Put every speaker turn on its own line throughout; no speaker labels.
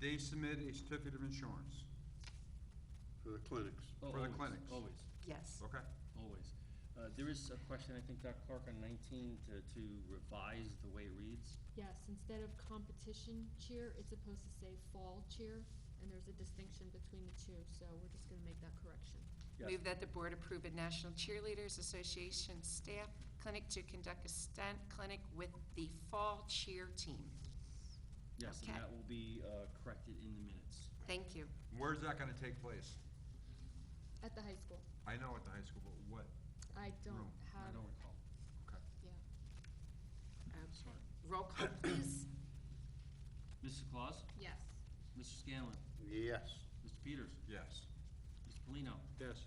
they submit a certificate of insurance
for the clinics.
for the
Always,
clinics.
Always,
Yes.
Okay,
always. Uh, There is a question, I think, Dr. Clark, on 19 to to revise the way it reads.
Yes, instead of competition cheer, it's supposed to say fall cheer, and there's a distinction between the two, so we're just gonna make that correction.
Yes.
Move that the board approve a National Cheerleaders Association staff clinic to conduct a stunt clinic with the fall cheer team.
Yes, and
Okay.
that will be uh, corrected in the minutes.
Thank you.
where's that gonna take place?
At the high school.
I know at the high school, but what?
I
No,
don't
I
have,
don't recall.
Okay.
yeah.
Okay. Roll call, please.
Mrs. Claus?
Yes.
Mr. Scanlon?
Yes.
Mr. Peters?
Yes.
Mr. Polino?
Yes.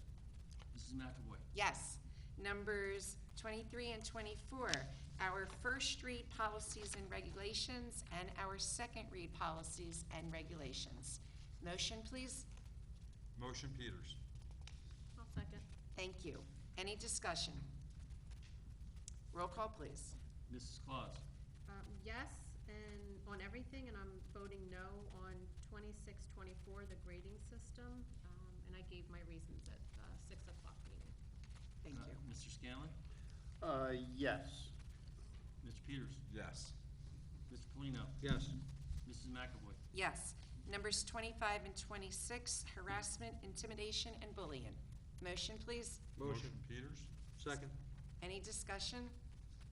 Mrs. McAvoy?
Yes. Numbers 23 and 24, our first read policies and regulations, and our second read policies and regulations. Motion, please.
Motion Peters.
I'll second.
Thank you. Any discussion? Roll call, please.
Mrs. Claus?
Um, Yes, and on everything, and I'm voting no on twenty-six, twenty-four, the grading system. Um, And I gave my reasons at the six o'clock meeting.
Thank
Uh,
you.
Mr. Scanlon?
Uh, yes.
Mr. Peters?
Yes.
Mr. Polino?
Yes.
Mrs. McAvoy?
Yes. Numbers 25 and 26, harassment, intimidation, and bullying. Motion, please.
Motion Peters.
Second,
Any discussion?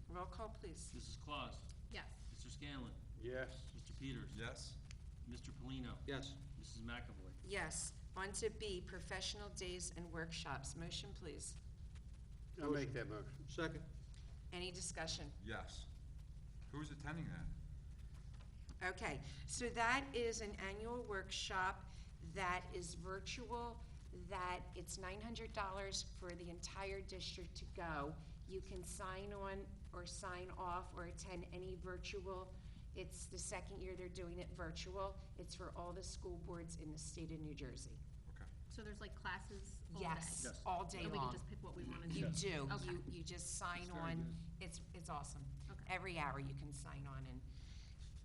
Roll call, please.
Mrs. Claus?
Yes,
Mr. Scanlon?
Yes.
Mr. Peters?
Yes.
Mr. Polino?
yes,
Mrs. McAvoy?
Yes. On to B, professional days and workshops. Motion, please.
I'll make that motion.
second,
Any discussion?
Yes. Who's attending that?
Okay, so that is an annual workshop that is virtual, that it's nine hundred dollars for the entire district to go. You can sign on or sign off or attend any virtual. It's the second year they're doing it virtual. It's for all the school boards in the state of New Jersey.
Okay.
so there's like classes all day.
Yes, all day
So we can
long.
just pick what we want to do.
You do,
Okay.
you, you just sign on, it's, it's awesome.
Okay.
Every hour you can sign on, and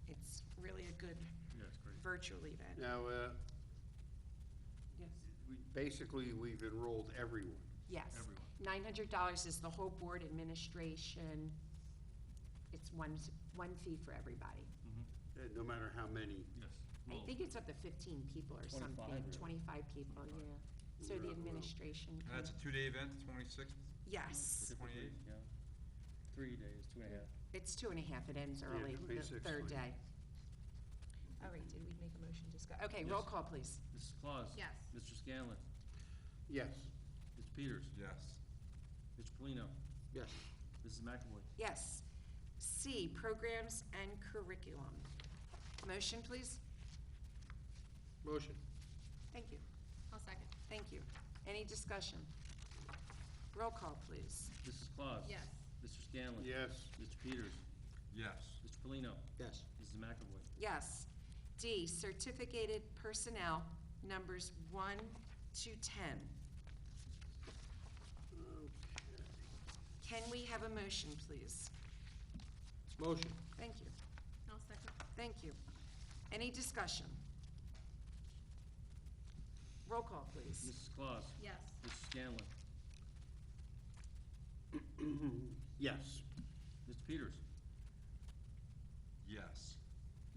it's really a good
Yeah, it's great.
virtual event.
Now, uh,
Yes.
we, basically, we've enrolled everyone.
Yes.
Everyone.
Nine hundred dollars is the whole board administration. It's one, s- one fee for everybody.
Uh, no matter how many.
Yes.
I
Well,
think it's up to fifteen people or
25
something,
or-
twenty-five people, yeah. So
Yeah,
the
well.
administration.
And that's a two-day event, the twenty-sixth?
Yes,
typically,
28?
yeah. Three days, two and a half.
it's two and a half, it ends early, the
26,
third
like-
day. All right, did we make a motion to discuss? Okay, roll
Yes.
call, please.
Mrs. Claus?
Yes.
Mr. Scanlon?
Yes.
Mr. Peters?
Yes.
Mr. Polino?
yes.
Mrs. McAvoy?
Yes. C, programs and curriculum. Motion, please?
Motion,
Thank you.
I'll second.
Thank you. Any discussion? Roll call, please.
Mrs. Claus?
Yes.
Mr. Scanlon?
Yes.
Mr. Peters?
Yes.
Mr. Polino?
yes,
Mrs. McAvoy?
Yes. D, certificated personnel, numbers 1 to 10.
Uh,
Can we have a motion, please?
motion,
Thank you,
I'll second.
thank you. Any discussion? Roll call, please.
Mrs. Claus?
Yes,
Mr. Scanlon?
Yes.
Mr. Peters?
Yes.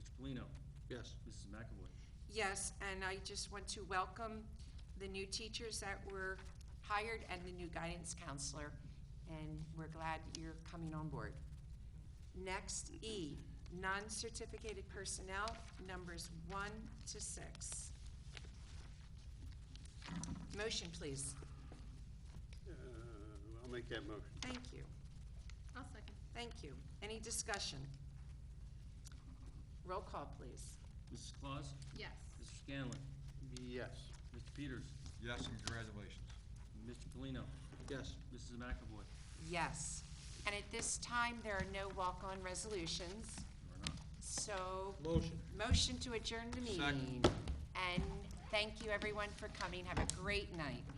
Mr. Polino?
yes,
Mrs. McAvoy?
Yes, and I just want to welcome the new teachers that were hired and the new guidance counselor, and we're glad you're coming on board. Next, E, non-certificated personnel, numbers one to six. Motion, please.
Uh, I'll make that motion.
Thank you,
I'll second.
thank you. Any discussion? Roll call, please.
Mrs. Claus?
Yes,
Mr. Scanlon?
Yes.
Mr. Peters?
Yes, and congratulations.
Mr. Polino?
yes.
Mrs. McAvoy?
Yes. And at this time, there are no walk-on resolutions,
Or not?
so
Motion.
Motion to adjourn the meeting.
Second.
And thank you, everyone, for coming. Have a great night.